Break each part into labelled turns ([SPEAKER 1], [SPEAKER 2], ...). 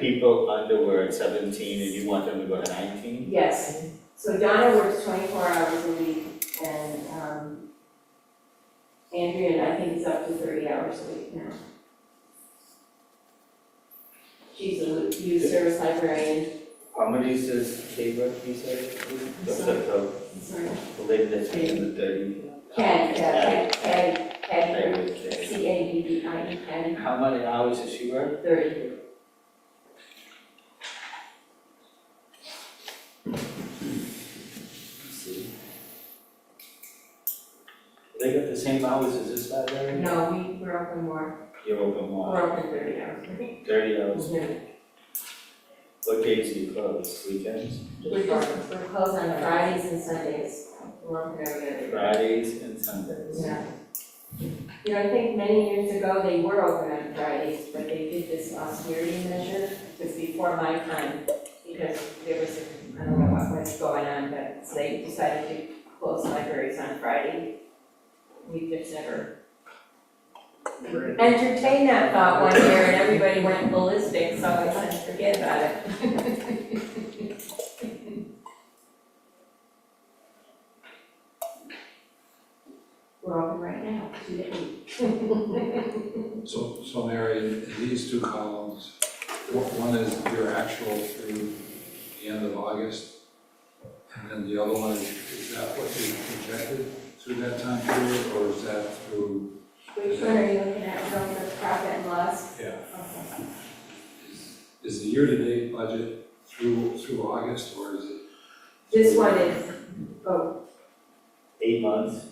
[SPEAKER 1] people under were at seventeen and you want them to go to nineteen?
[SPEAKER 2] Yes, so Donna works twenty-four hours a week and, um, Andrea, I think, is up to thirty hours a week now. She's a youth service librarian,
[SPEAKER 3] How many is this K-Rex you said? That's the,
[SPEAKER 2] I'm sorry,
[SPEAKER 3] the lady that's in the thirty.
[SPEAKER 2] Cad, yeah, Cad, Cad,
[SPEAKER 1] They
[SPEAKER 2] Cad,
[SPEAKER 1] would say.
[SPEAKER 2] C A D D I E, Cad,
[SPEAKER 3] How many hours is she work?
[SPEAKER 2] thirty.
[SPEAKER 3] See. They got the same hours as this library?
[SPEAKER 2] No, we, we're open more,
[SPEAKER 1] You're open more,
[SPEAKER 2] we're open thirty hours a week.
[SPEAKER 1] thirty hours,
[SPEAKER 2] We're,
[SPEAKER 1] what days do you close, weekends,
[SPEAKER 2] we're closed on Fridays and Sundays, we're open every other day.
[SPEAKER 1] Fridays and Sundays?
[SPEAKER 2] Yeah. You know, I think many years ago, they were open on Fridays, but they did this austerity measure, it was before my time, because there was, I don't know what was going on, but so they decided to close libraries on Friday. We've just never entertained that thought one year, and everybody went ballistic, so I kind of forget about it. We're open right now, two days.
[SPEAKER 4] So, so Mary, in these two columns, wh- one is your actual through the end of August, and then the other one, is that what you projected through that time period, or is that through?
[SPEAKER 2] Which one are you looking at from the profit and loss?
[SPEAKER 4] Yeah.
[SPEAKER 2] Okay.
[SPEAKER 4] Is- Is the year-to-date budget through, through August, or is it?
[SPEAKER 2] This one is, oh,
[SPEAKER 1] Eight months,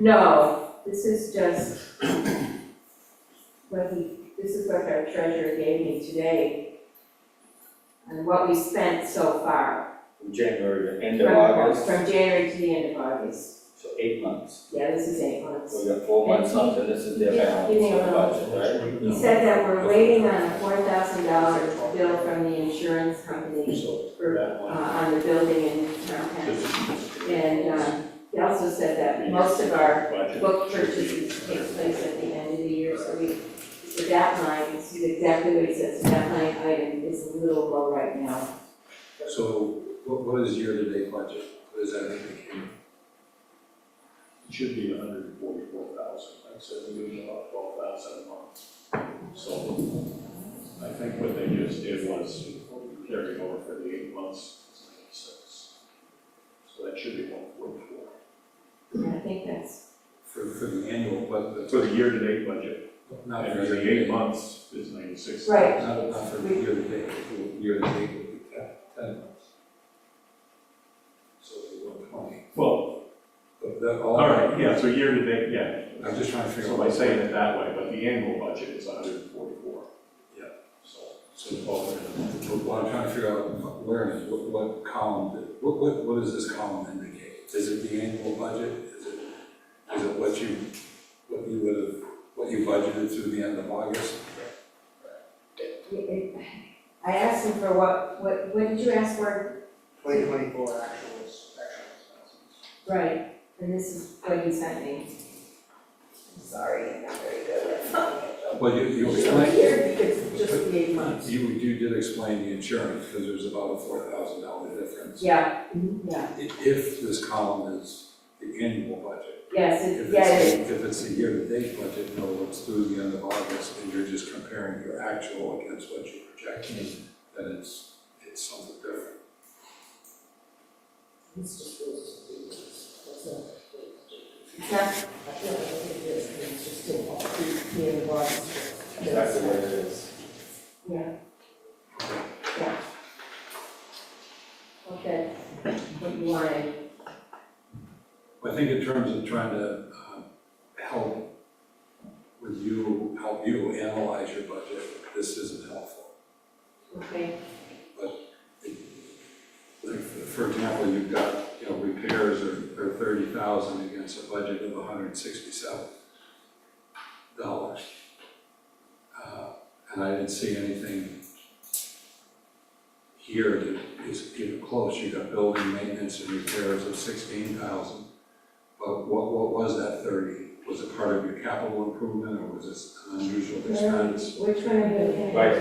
[SPEAKER 2] no, this is just what he, this is what our treasurer gave me today. And what we spent so far.
[SPEAKER 1] from January to end of
[SPEAKER 2] from-
[SPEAKER 1] August,
[SPEAKER 2] From January to the end of August.
[SPEAKER 1] so eight months.
[SPEAKER 2] Yeah, this is eight months.
[SPEAKER 1] We got four months left and this is their
[SPEAKER 2] Yeah,
[SPEAKER 1] balance
[SPEAKER 2] give me a
[SPEAKER 1] of the
[SPEAKER 2] moment.
[SPEAKER 1] budget, right?
[SPEAKER 2] He said that we're waiting on a four thousand dollar bill from the insurance company for, uh, on the building in town. And, um, he also said that most of our book purchases take place at the end of the year, so we, so that line, this is exactly what he says, that line item is a little low right now.
[SPEAKER 4] So what, what is year-to-date budget? What is that indicating?
[SPEAKER 5] It should be hundred and forty-four thousand, like I said, we lose about twelve thousand a month. So I think what they just did was carry over for the eight months, it's ninety-six. So that should be one forty-four.
[SPEAKER 2] And I think that's,
[SPEAKER 4] For, for the annual, but,
[SPEAKER 5] For the year-to-date budget,
[SPEAKER 4] not
[SPEAKER 5] and
[SPEAKER 4] for
[SPEAKER 5] the
[SPEAKER 4] year-to-date.
[SPEAKER 5] eight months is ninety-six.
[SPEAKER 2] Right.
[SPEAKER 4] Not, not for year-to-date, for year-to-date would be ten, ten months. So it'd be one twenty,
[SPEAKER 5] Well,
[SPEAKER 4] but that all.
[SPEAKER 5] all right, yeah, so year-to-date, yeah.
[SPEAKER 4] I'm just trying to figure out.
[SPEAKER 5] So by saying it that way, but the annual budget is hundred and forty-four.
[SPEAKER 4] Yeah.
[SPEAKER 5] So, so twelve hundred and forty-four.
[SPEAKER 4] Well, I'm trying to figure out where, it is, what, what column, did- what, what, what does this column indicate? Is it the annual budget? Is it, is it what you, what you would have, what you budgeted through the end of August?
[SPEAKER 2] I asked him for what, what, what did you ask for?
[SPEAKER 6] Twenty twenty-four actuals, actual expenses.
[SPEAKER 2] Right, and this is what he sent me. I'm sorry, I'm not very good at
[SPEAKER 4] Well, you, you explained,
[SPEAKER 2] Here, it's just the eight months.
[SPEAKER 4] you, you did explain the insurance, because there's about a four thousand dollar difference.
[SPEAKER 2] Yeah, yeah,
[SPEAKER 4] i- if this column is the annual budget.
[SPEAKER 2] yes,
[SPEAKER 4] If
[SPEAKER 2] it, yeah, it is.
[SPEAKER 4] it's, if it's a year-to-date budget, no, it's through the end of August, and you're just comparing your actual against what you project, then it's, it's something different.
[SPEAKER 2] It's not
[SPEAKER 1] Exactly what it is.
[SPEAKER 2] Yeah. Yeah. Okay, what you wanted,
[SPEAKER 4] I think in terms of trying to um, help with you, help you analyze your budget, this isn't helpful.
[SPEAKER 2] okay,
[SPEAKER 4] Like, for example, you've got, you know, repairs are, are thirty thousand against a budget of hundred and sixty-seven dollars. Uh, And I didn't see anything here that is even close, you got building maintenance and repairs of sixteen thousand. But what, what was that thirty? Was it part of your capital improvement, or was this an unusual expense?
[SPEAKER 2] which one are you looking at?
[SPEAKER 1] Right.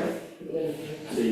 [SPEAKER 1] So you